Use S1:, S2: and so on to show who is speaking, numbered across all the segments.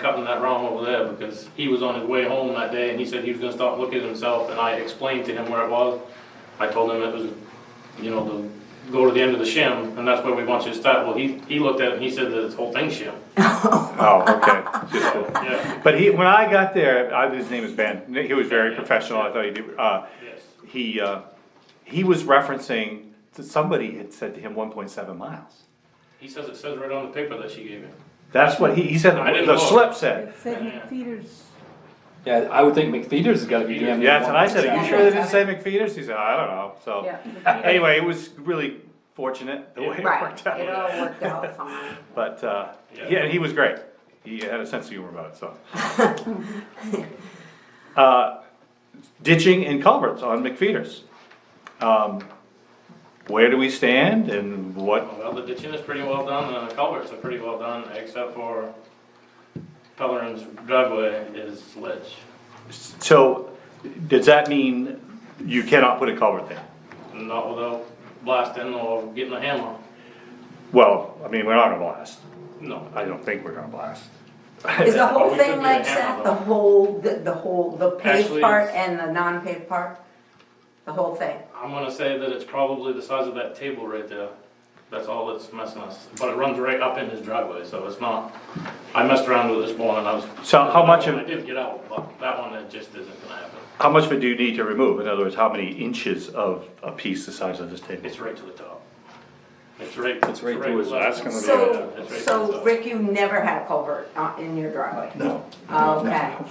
S1: cutting that wrong over there because he was on his way home that day and he said he was gonna stop and look at himself and I explained to him where it was. I told him it was, you know, the, go to the end of the shim and that's where we want you to start. Well, he, he looked at it and he said that this whole thing's shim.
S2: Oh, okay. Just a-
S1: Yeah,
S2: But he, when I got there, I, his name is Ben, he was very professional, I thought he did, uh,
S1: yes.
S2: he, uh, he was referencing, that somebody had said to him one point seven miles.
S1: He says it says right on the paper that she gave him.
S2: That's what he, he said,
S1: I didn't
S2: the
S1: look.
S2: slip said.
S3: It said McFeeters.
S4: Yeah, I would think McFeeder's has gotta be damn.
S2: Yeah, and I said, are
S3: Yeah,
S2: you sure they didn't
S3: that's
S2: say McFeeters? He said, I don't know, so. Anyway, it was really fortunate the way it
S5: Right,
S2: worked
S5: it
S2: out,
S5: all worked out fine.
S2: but, uh,
S1: Yeah.
S2: yeah, and he was great, he had a sense of humor about it, so. Uh, ditching and culverts on McFeeters. Um, where do we stand and what,
S1: Well, the ditching is pretty well done and the culverts are pretty well done except for Pellerin's driveway is ledge.
S2: so, does that mean you cannot put a culvert there?
S1: Not without blasting or getting a hammer.
S2: Well, I mean, we're not gonna blast,
S1: No,
S2: I don't think we're gonna blast.
S5: Is the
S1: Well,
S5: whole
S1: we could
S5: thing
S1: do
S5: like
S1: the hammer,
S5: that, the
S1: though.
S5: whole, the the whole, the paved
S1: Actually,
S5: part
S1: it's-
S5: and the non-paved part? The whole thing?
S1: I'm gonna say that it's probably the size of that table right there. That's all that's messing us, but it runs right up in his driveway, so it's not, I messed around with this one and I was.
S2: So how much of-
S1: I did get out, but that one, it just isn't gonna happen.
S2: How much of it do you need to remove? In other words, how many inches of a piece the size of this table?
S1: It's right to the top. It's right.
S4: It's right to his-
S1: left.
S2: that's gonna be-
S5: So,
S1: It's right to the
S5: so
S1: top.
S5: Rick, you never had a culvert uh, in your driveway?
S2: No.
S5: Okay.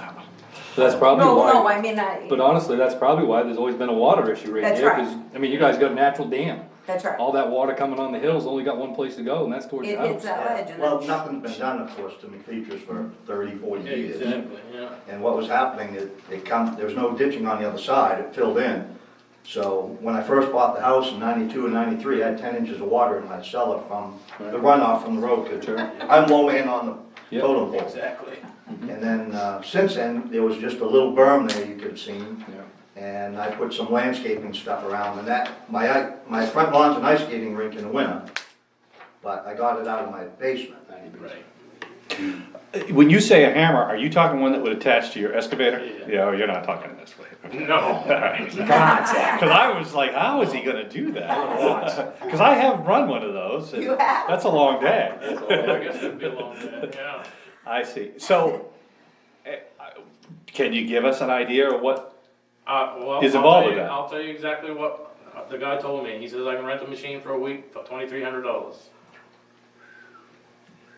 S4: That's probably
S5: No, no,
S4: why,
S5: I mean,
S4: but
S5: I,
S4: honestly, that's probably why there's always been a water issue right
S5: That's
S4: there,
S5: right.
S4: 'cause, I mean, you guys got a natural dam.
S5: that's right.
S4: All that water coming on the hill's only got one place to go, and that's towards
S5: It
S4: the
S5: hits
S4: house.
S5: that ledge and
S6: Well,
S5: then,
S6: nothing's been done, of course, to McFeeters for 30, 40
S1: Yeah,
S6: years.
S1: Exactly, yeah.
S6: And what was happening, it, it come, there was no ditching on the other side, it filled in. So when I first bought the house in ninety-two and ninety-three, I had ten inches of water in my cellar from the runoff from the road. 'cause
S4: Sure.
S6: I'm low man on the
S4: Yep.
S6: totem pole.
S1: Exactly.
S6: And then, uh, since then, there was just a little berm there you could have seen.
S4: Yeah.
S6: And I put some landscaping stuff around and that, my, i- my front lawn's an ice skating rink in the winter. But I got it out of my basement.
S1: Right.
S2: When you say a hammer, are you talking one that would attach to your excavator?
S1: Yeah.
S2: Yeah, you're not talking this way.
S1: No,
S2: Cause I was like, how is he gonna do that? Cause I have run one of those. and
S5: You have?
S2: That's a long day.
S1: Yeah, I guess it'd be a long day, yeah.
S2: I see. So, eh, I- can you give us an idea of what,
S1: Uh, well,
S2: Is
S1: I'll
S2: involved
S1: tell
S2: with
S1: you-
S2: that.
S1: I'll tell you exactly what uh, the guy told me. He says I can rent the machine for a week for twenty-three hundred dollars.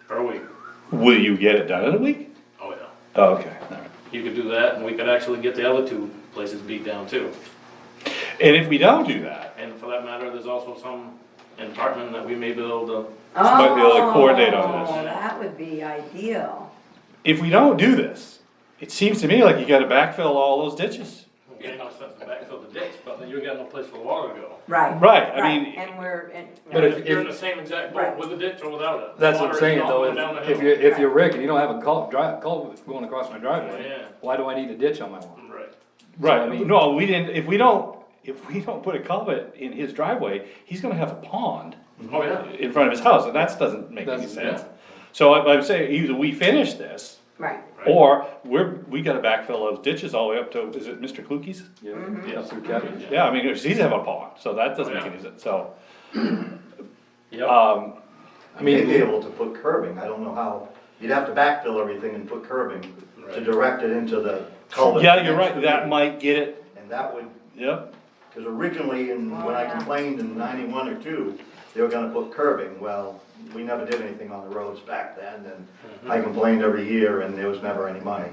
S1: Per week.
S2: will you get it done in a week?
S1: Oh, yeah.
S2: Oh, okay. all right.
S1: You could do that and we could actually get the other two places beat down too.
S2: And if we don't do that,
S1: And for that matter, there's also some in Hartman that we may uh, be able to,
S2: might be able to coordinate on this.
S5: oh, that would be ideal.
S2: if we don't do this, it seems to me like you gotta backfill all those ditches.
S1: you know, set the backfill the ditch, but then you got no place for the water to go.
S5: Right.
S2: Right, I mean-
S5: And we're, and,
S4: But if-
S1: You're in
S4: if-
S1: the same exact
S5: Right.
S1: boat with a ditch or without it.
S4: That's what
S1: Water
S4: I'm
S1: is
S4: saying
S1: not
S4: though,
S1: going down the
S4: is if
S1: hill.
S4: you're, if you're Rick and you don't have a cul, drive, culvert going across my driveway,
S1: Yeah.
S4: why do I need a ditch on my lawn?
S1: Right.
S2: Right,
S4: So, I mean-
S2: no, we didn't, if we don't, if we don't put a culvert in his driveway, he's gonna have a pond
S1: Oh,
S4: Mm-hmm.
S1: yeah.
S2: in front of his house, and that doesn't make any
S4: Doesn't-
S2: sense. So I- I'm saying, either we finish this,
S5: right,
S1: Right.
S2: or we're, we gotta backfill those ditches all the way up to, is it Mr. Klukie's?
S4: Yeah, up through Kevin's.
S2: Yeah, I mean, 'cause he's have a pond, so that doesn't make
S1: Yeah.
S2: any sense, so,
S1: Yep.
S2: um,
S4: I
S6: They'd be
S4: mean,
S6: able to put curbing, I don't know how, you'd have to backfill everything and put curbing to
S1: Right.
S6: direct it into the culvert.
S2: yeah, you're right, that might get it,
S6: And that would,
S2: yep,
S6: because originally, in when
S4: Oh,
S6: I complained in ninety-one or two, they were gonna put curbing, well, we never did anything on the roads back then, and
S4: Mm-hmm.
S6: I complained every year, and there was never any money.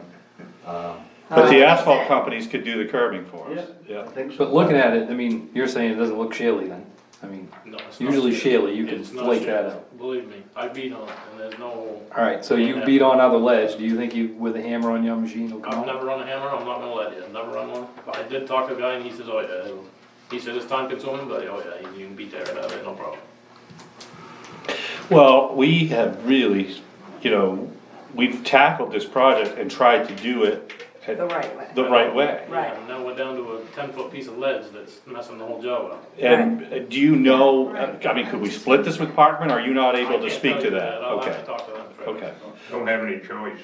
S6: Um,
S2: but the
S5: Uh,
S2: asphalt companies could do the curbing for us,
S6: I
S2: yeah.
S6: think so.
S4: but looking at it, I mean, you're saying it doesn't look shaly then, I mean.
S1: No, it's not
S4: Usually
S1: shit.
S4: shaly, you can
S1: It's not
S4: flake
S1: shit.
S4: that out.
S1: Believe me, I beat on it and there's no,
S4: Alright, so you beat on other ledge, do you think you, with a hammer on your machine will
S1: I've
S4: come out?
S1: never run a hammer, I'm not gonna let you, I've never run one. But I did talk to a guy and he says, oh yeah, it'll- he said it's time consuming, but oh yeah, you can beat that right out of it, no problem.
S2: Well, we have really, you know, we've tackled this project and tried to do it
S5: the
S2: at
S5: right way.
S2: the right way.
S5: Right.
S1: And now we're down to a ten foot piece of ledge that's messing the whole job up.
S2: And uh, do you know, I mean, could we split this with Parkman, are you not
S1: I
S2: able to
S1: can't
S2: speak
S1: tell
S2: to
S1: you
S2: that?
S1: I'll have to
S2: Okay,
S1: talk to them. first.
S2: okay.
S7: Don't have any choice.